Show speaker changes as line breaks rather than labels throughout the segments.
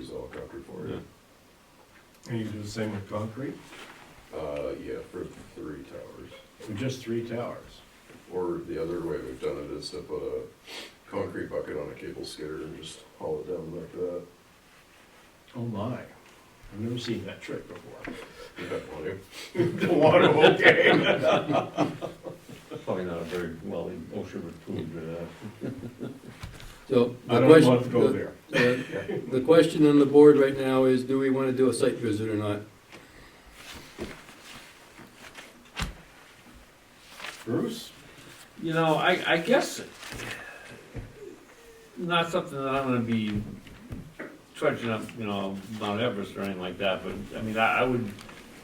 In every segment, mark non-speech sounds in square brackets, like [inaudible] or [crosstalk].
helicopter for it.
And you do the same with concrete?
Uh, yeah, for three towers.
Or just three towers?
Or the other way we've done it is to put a concrete bucket on a cable skidder and just haul it down like that.
Oh my, I've never seen that trick before.
You eh? don't want to.
The [laughs] water, okay.
Probably not a very, well, the OSHA would approve of that.
So
I
the
don't want to
question,
go there.
the- the question on the board right now is, do we want to do a site visit or not?
Bruce?
You know, I, I guess not something that I'm gonna be trudging up, you know, Mount Everest or anything like that, but, I mean, I, I would,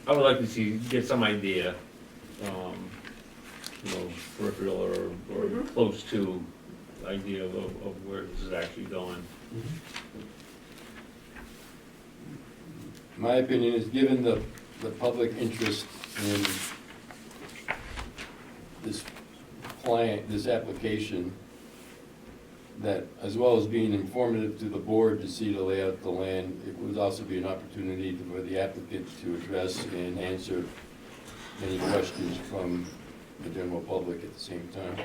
I would like to see, get some idea, um, you know, peripheral or, or close to idea of, of where this is actually going.
Mm-hmm. My opinion is, given the, the public interest in this client, this application, that as well as being informative to the board to see the layout of the land, it would also be an opportunity for the applicant to address and answer any questions from the general public at the same time.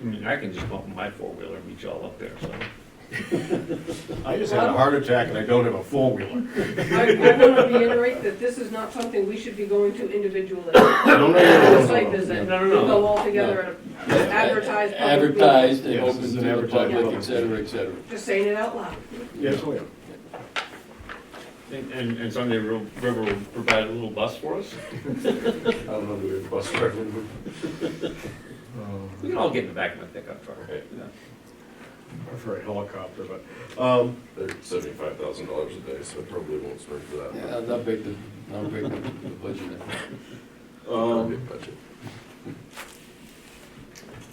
I mean, I can just bump my four-wheeler and reach all up there, so.
I just had a heart attack and I don't have a four-wheeler.
I want to reiterate that this is not something we should be going to individually. It's
No, no,
a
no,
site
no, no.
visit,
No, no,
we
no.
go all together and advertise publicly.
Advertised and
Yes,
open
it's
to
an
the
advertising
public,
public.
et cetera, et cetera.
Just saying it out loud.
Yes, I am.
And, and, and someday Ro- River will provide a little bus for us.
I don't know, do we have a bus driver?
We
Oh.
can all get in the back of my pickup truck.
Right.
Yeah.
I prefer a helicopter, but, um,
They're seventy-five thousand dollars a day, so I probably won't spring for that.
Yeah, I'll not break the, I'll break the the budget.
Not a
um,
big budget.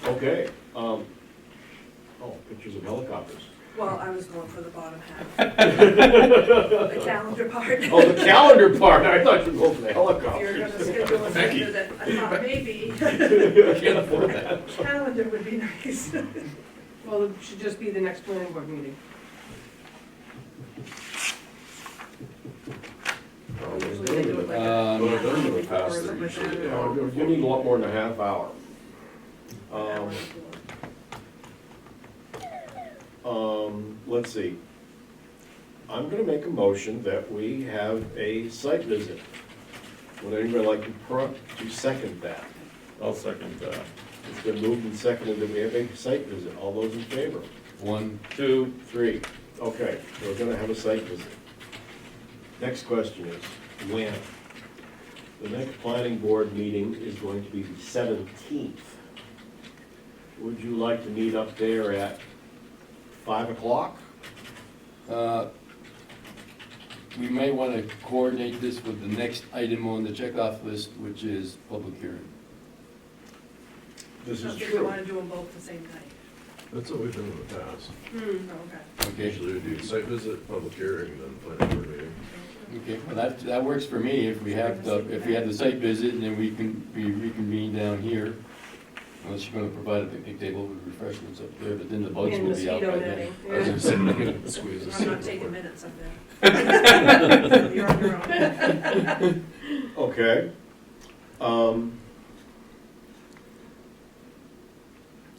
okay, um, oh, pictures of helicopters.
Well, I was going for the bottom
[laughs]
half. The calendar part. If
Oh, the calendar part, I thought you were going for the
you're
helicopter.
going to schedule a center that I thought maybe,
Can't afford that.
calendar would be nice. Well, it should just be the next planning board meeting.
Um,
Usually they do
Uh,
it like a-
Um,
But I've done it in the past, they're usually an hour
You you need a lot more than a half hour. Um, Um, let's see. I'm gonna make a motion that we have a site visit. Would anybody like to pro, to second that?
I'll second uh, that.
It's been moved and seconded that we have a site visit. All those in favor?
One,
Two,
Three. Okay, we're gonna have a site visit. Next question is, when? The next planning board meeting is going to be the seventeenth. Would you like to meet up there at five o'clock?
uh, we may want to coordinate this with the next item on the checkoff list, which is public hearing.
This is
Don't think we
true.
want to do them both the same night.
That's what we've done in the past.
Hmm, okay.
Okay,
Usually we do site visit, public hearing, then planning board meeting.
okay, well, that, that works for me, if we have the, if we have the site visit, and then we can, we reconvene down here. Unless you're gonna provide a picnic table with refreshments up there, but then the bugs
And
will be out
mosquito
by
netting,
then.
I was gonna say, [laughs] we could squeeze this
I'm not
in.
taking minutes up there. [laughs] You're on your own.
Okay. Um,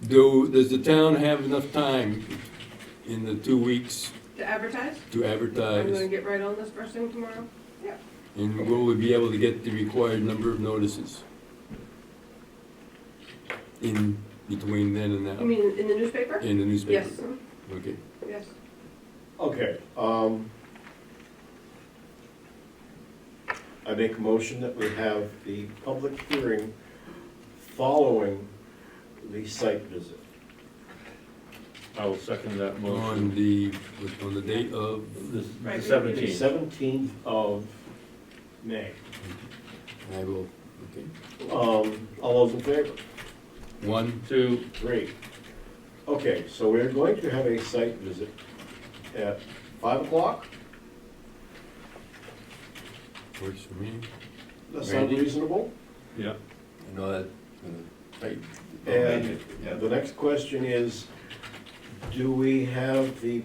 Do, does the town have enough time in the two weeks
To advertise?
to
I'm gonna
advertise?
get right on this first thing tomorrow.
And will we be able to get the required number of notices? In between then and
You
now,
mean in the newspaper?
in the newspaper?
Yes,
Okay,
yes.
okay, um. I make a motion that we have the public hearing following the site visit.
I will second that
on
motion.
the, on the date of,
This
Right,
the
we-
The
seventeenth.
seventeenth of May.
I will, okay,
Um, all those in favor?
one,
Two,
Three. Okay, so we're going to have a site visit at five o'clock?
works for me,
That sounds
Randy?
reasonable?
yeah.
I know that, uh, right.
And the next question is, do we have the